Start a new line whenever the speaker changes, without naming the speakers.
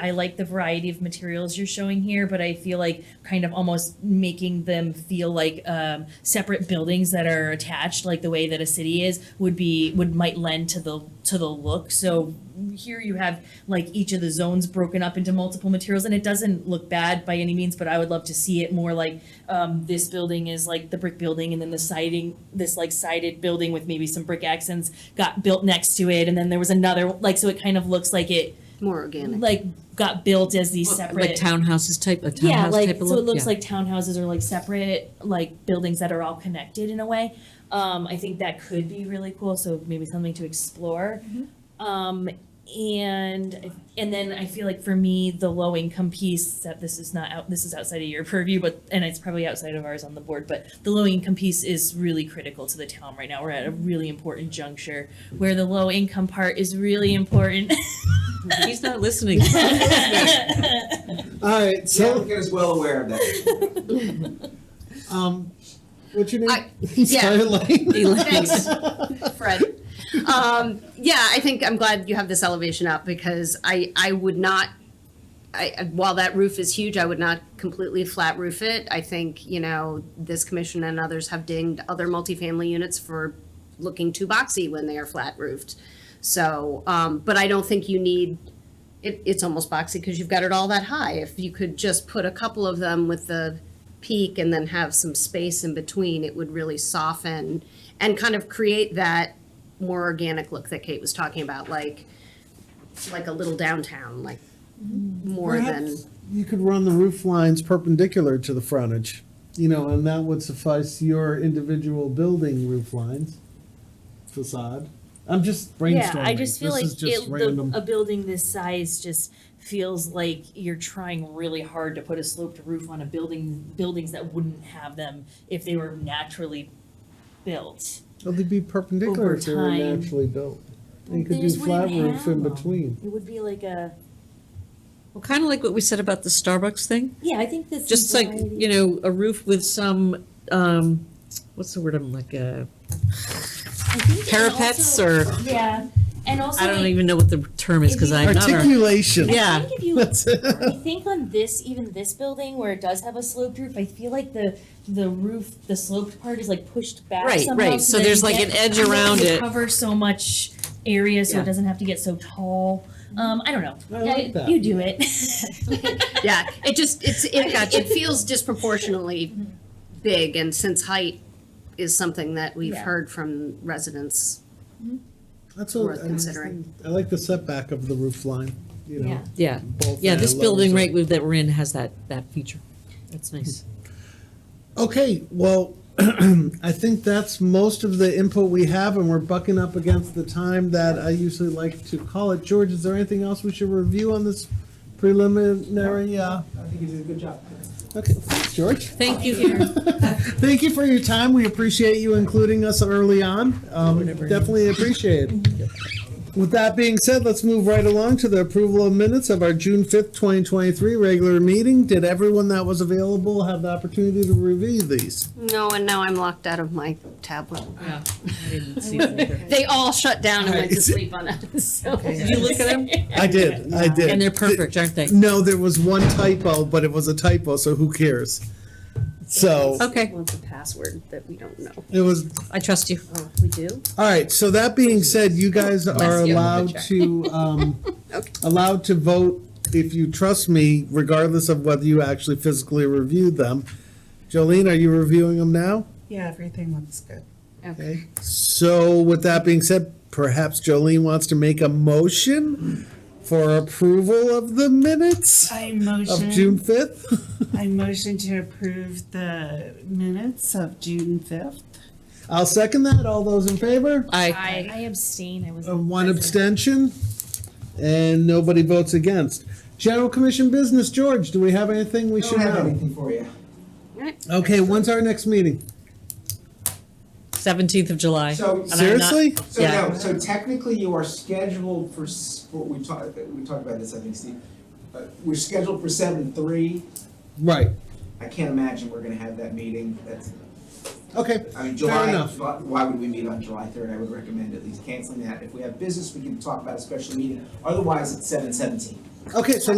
I like the variety of materials you're showing here, but I feel like kind of almost making them feel like um, separate buildings that are attached, like the way that a city is, would be would might lend to the to the look. So here you have like each of the zones broken up into multiple materials, and it doesn't look bad by any means. But I would love to see it more like um, this building is like the brick building, and then the siding, this like sided building with maybe some brick accents got built next to it, and then there was another like so it kind of looks like it
More organic.
like got built as these
Like
separate.
townhouses type, a
Yeah,
townhouse
like,
type of look?
so it looks
Yeah.
like townhouses are like separate, like buildings that are all connected in a way. Um, I think that could be really cool, so maybe something to explore.
Mm-hmm.
Um, and, and then I feel like for me, the low income piece, that this is not out, this is outside of your purview, but, and it's probably outside of ours on the board, but the low income piece is really critical to the town right now. We're at a really important juncture where the low income part is really important.
He's not listening.
All right, so
applicant is well aware of that.
um, what's your name?
I- yeah.
Sorry, Elaine.
Elaine.
Thanks. Fred. Um, yeah, I think I'm glad you have this elevation up because I, I would not, I, while that roof is huge, I would not completely flat roof it. I think, you know, this commission and others have dinged other multifamily units for looking too boxy when they are flat roofed. So, um, but I don't think you need, it, it's almost boxy because you've got it all that high. If you could just put a couple of them with the peak and then have some space in between, it would really soften and kind of create that more organic look that Kate was talking about, like, like a little downtown, like more than,
Perhaps You could run the roof lines perpendicular to the frontage, you know, and that would suffice your individual building roof lines facade. I'm just brainstorming.
Yeah, I just feel
This
like
is just
it,
random.
the, a building this size just feels like you're trying really hard to put a sloped roof on a building, buildings that wouldn't have them if they were naturally built.
Well, They'd be perpendicular
over
if they were
time-
naturally built.
Well,
You could
they
do
just
flat
wouldn't
roof in
have 'em.
between.
It would be like a,
Well, kind of like what we said about the Starbucks thing,
yeah, I think this is.
just like, you know, a roof with some, um, what's the word, I'm like, uh, parapets or,
Yeah, and also.
I don't
it-
even know what the term is, because I'm not. a-
Articulation.
Yeah.
I think if you,
That's it.
I think on this, even this building where it does have a sloped roof, I feel like the, the roof, the sloped part is like pushed back
Right,
somehow.
right, so
that
there's
you
like
get-
an edge around
to
it.
Cover so much area so
Yeah.
it doesn't have to get so tall. Um, I don't know.
I like that.
You do it.
yeah, it just, it's, it, it feels disproportionately big, and since height is something that we've
Yeah.
heard from residents.
That's what
Worth
I was
considering.
thinking. I like the setback of the roof line, you know.
Yeah.
Yeah,
both
yeah,
end
this
levels
building
are-
right with- that we're in has that, that feature. That's nice.
Okay, well, I think that's most of the input we have, and we're bucking up against the time that I usually like to call it. George, is there anything else we should review on this preliminary? uh,
I think you did a good job.
Okay, thanks, George.
Thank you.
Thank you for your time. We appreciate you including us early on. Um, Definitely appreciate it. With that being said, let's move right along to the approval of minutes of our June 5th, 2023 regular meeting. Did everyone that was available have the opportunity to review these?
No, and now I'm locked out of my tablet.
Yeah, I didn't see that either.
They all shut down and went to
Alright.
sleep on us, so.
Did you look at them?
I did, I did.
And they're perfect, aren't they?
No, there was one typo, but it was a typo, so who cares? So
Okay,
Wants a password that we don't know.
it was,
I trust you.
Oh, we do?
all right, so that being said, you guys are
you.
allowed to, um, allowed to vote if you trust me, regardless of whether you actually physically reviewed them. Jolene, are you reviewing them now?
Yeah, everything looks good.
Okay. So with that being said, perhaps Jolene wants to make a motion for approval of the minutes
I
of June
motion,
5th?
I motion to approve the minutes of June fifth.
I'll second that. All those in favor?
I,
I, I abstain. I was.
Uh, One abstention, and nobody votes against. General Commission business, George, do we have anything we
I
should
don't have
know?
anything for you.
Okay, when's our next meeting?
seventeenth of July. And
So-
I'm not-
Seriously?
So
Yeah.
no, so technically you are scheduled for, s- for- we talked, we talked about this, I think, Steve. Uh, We're scheduled for seven three.
Right,
I can't imagine we're gonna have that meeting. That's,
okay,
I mean,
fair
July,
enough.
why why would we meet on July third? I would recommend at least canceling that. If we have business, we can talk about a special meeting. Otherwise, it's seven seventeen.
Okay, so